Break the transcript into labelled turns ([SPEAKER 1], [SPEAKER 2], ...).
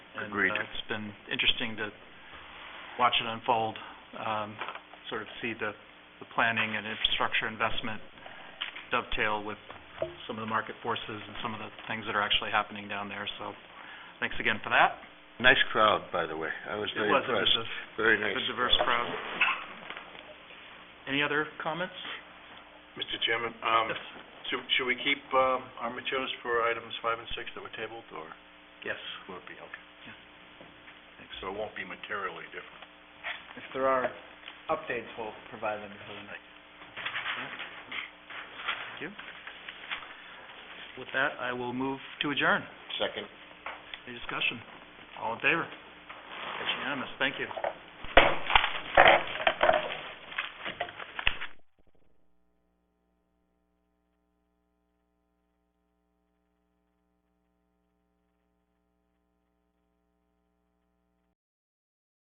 [SPEAKER 1] and
[SPEAKER 2] Agreed.
[SPEAKER 1] uh, it's been interesting to watch it unfold, um, sort of see the, the planning and infrastructure investment dovetail with some of the market forces and some of the things that are actually happening down there, so thanks again for that.
[SPEAKER 2] Nice crowd, by the way. I was
[SPEAKER 1] It
[SPEAKER 2] very
[SPEAKER 1] was, it
[SPEAKER 2] impressed.
[SPEAKER 1] was a
[SPEAKER 2] Very nice.
[SPEAKER 1] good diverse crowd. Any other comments?
[SPEAKER 3] Mr. Chairman, um,
[SPEAKER 1] Yes.
[SPEAKER 3] should, should we keep, um, our materials for items five and six that were tabled, or
[SPEAKER 1] Yes.
[SPEAKER 3] will it be, okay? So it won't be materially different.
[SPEAKER 4] If there are updates, we'll provide them for the next.
[SPEAKER 1] With that, I will move to adjourn.
[SPEAKER 2] Second.
[SPEAKER 1] Any discussion? All in favor? It's unanimous. Thank you.